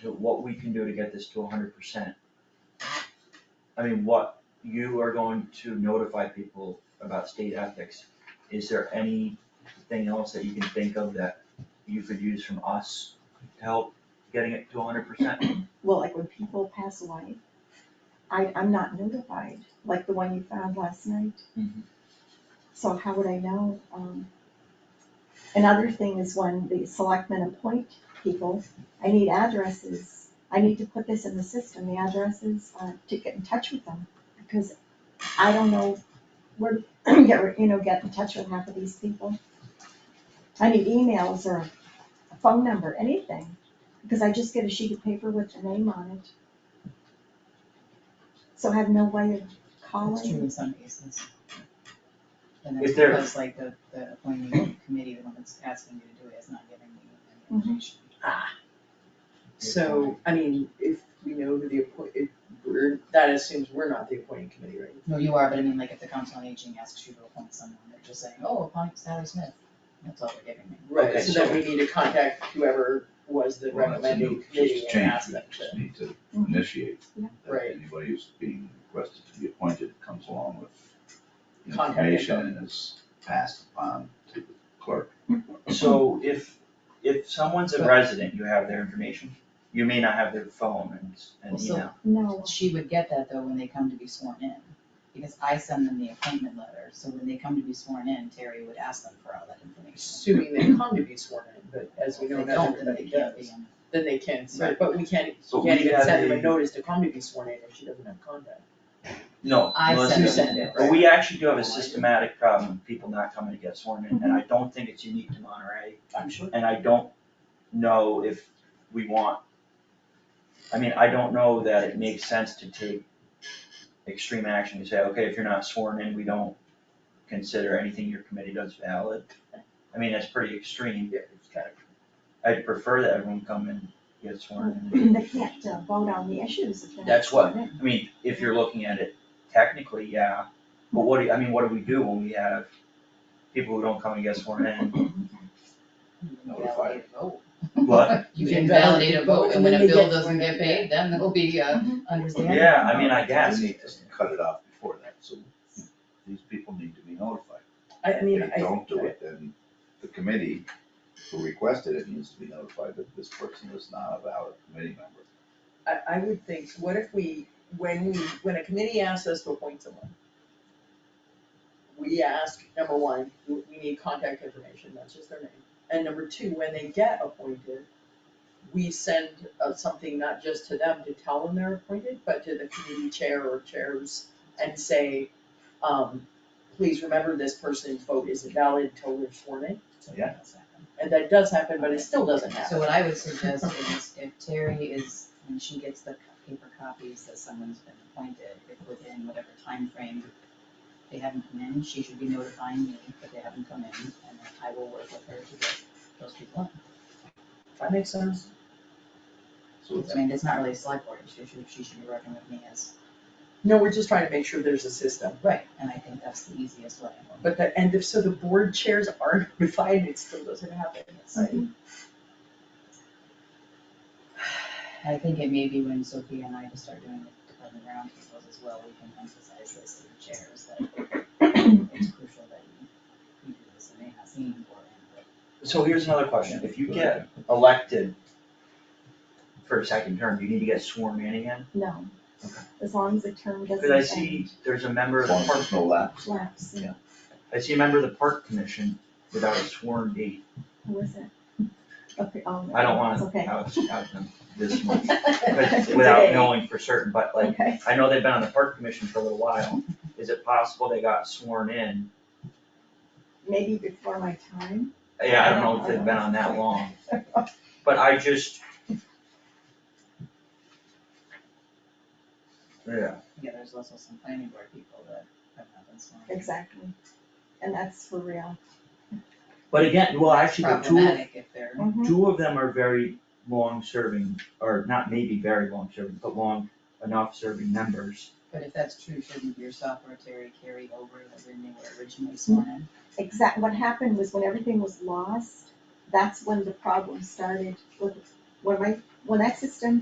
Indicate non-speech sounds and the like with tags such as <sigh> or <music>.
to what we can do to get this to hundred percent. I mean, what, you are going to notify people about state ethics, is there anything else that you can think of that you could use from us to help getting it to hundred percent? Well, like when people pass away, I, I'm not notified, like the one you found last night. Mhm. So how would I know? Um, Another thing is when the selectmen appoint people, I need addresses. I need to put this in the system, the addresses, uh, to get in touch with them, because I don't know where, to <clears throat> get, re- you know, get in touch with half of these people. I need emails or a phone number, anything. Because I just get a sheet of paper with the name on it. So I have no way of That's true calling. in some cases. And If that's they're- because like the, the appointing committee, the one that's asking you to do it is not giving you Mhm. any information. So, I mean, if we know who the appoint, if we're, that assumes we're not the appointing committee, right? No, you are, but I mean, like if the council on aging asks you to appoint someone, they're just saying, oh, appoint Sally Smith, that's all they're giving me. Okay, So then so- we need to contact whoever was the Well, that's a new recommending committee and change, ask we them just to. need to Mm-hmm. Mhm. initiate. Yeah. that Right. Anybody who's being requested to be appointed comes along with Contact information info. and is passed on to the clerk. So if, if someone's a resident, you have their information, you may not have their phone and, and Well, so- email. No, She would get that though when they come to be sworn in, because I send them the appointment letter, so when they come to be sworn in, Terry would ask them for all that information. Assuming they come to be sworn in, but as we know, If they not don't, then they everybody can't be does, in. then they can, so, Right. but we can't, So can't we even had send them a a- notice to come to be sworn in if she doesn't have contact. No, I Melissa, send You it. send it, But right? we actually do have a systematic problem with people not coming to get sworn in, and I don't think it's unique to Monterey, I'm sure. and I don't know if we want. I mean, I don't know that it makes sense to take extreme action to say, okay, if you're not sworn in, we don't consider anything your committee does valid. I mean, that's pretty extreme, Yeah, it's kind of, I'd prefer that everyone come and get sworn <clears throat> in. <clears throat> they can't uh, vote on the issues if they're not That's what- sworn in. I mean, if you're looking at it technically, yeah, but what do, you- I mean, what do we do when we have people who don't come and get sworn in? You can Notified. validate a vote. But, <laughs> You They can validate a vote, and when a they bill get Mm-hmm. doesn't sworn get in. paid, then there'll be uh, a understanding. yeah, I mean, I guess, We need to cut it off before that, so these people need to be notified. I, I mean, If I. they don't do it, then the committee who requested it needs to be notified that this person is not a valid committee member. I, I would think, what if we, when we, when a committee asks us to appoint someone, we ask, number one, we we need contact information, that's just their name. And number two, when they get appointed, we send uh, something not just to them to tell them they're appointed, but to the committee chair or chairs and say, um, please remember this person's vote is invalid until they're sworn in. Yeah. And that does happen, but it still doesn't happen. So what I would suggest is if Terry is, when she gets the paper copies that someone's been appointed, if within whatever time frame they haven't come in, she should be notifying me that they haven't come in, and then I will work with her to get those people That makes sense. So in. I mean, it's not really a select board issue, she, she should be working with me as, No, we're just trying to make sure there's a system. right, and I think that's the easiest way. But the, and if, so the board chairs are <laughs> notified, it still doesn't happen, it's like, Mm-hmm. I think it may be when Sophia and I just start doing the department roundtables as well, we can emphasize this to the chairs that it's crucial that you, you do this, it may not seem important, but. so here's another question, if you get elected for a second term, do you need to get sworn in again? No, Okay. as long as the term doesn't. Cause I see there's a member of As the long as there's park, no lapse. Collapse, Yeah. I see a member of the park commission without a sworn date, who is it? <laughs> Okay, um. I don't wanna Okay. out, out them this much, <laughs> <laughs> Okay. but without knowing for certain, but like, Okay. I know they've been on the park commission for a little while, is it possible they got sworn in? Maybe before my time, <laughs> Yeah, I don't know if they've been on that long, but I just. Yeah, Yeah, there's also some planning board people that have not been sworn. in. exactly. And that's for real. but again, well, That's actually, the two of Problematic if they're, Mhm. Two of them are very long-serving, or not maybe very long-serving, but long enough serving members. but if that's true, shouldn't your software, Terry, carry over that when they were originally sworn in? exact, what happened was when everything was lost, that's when the problem started with, when my, when that system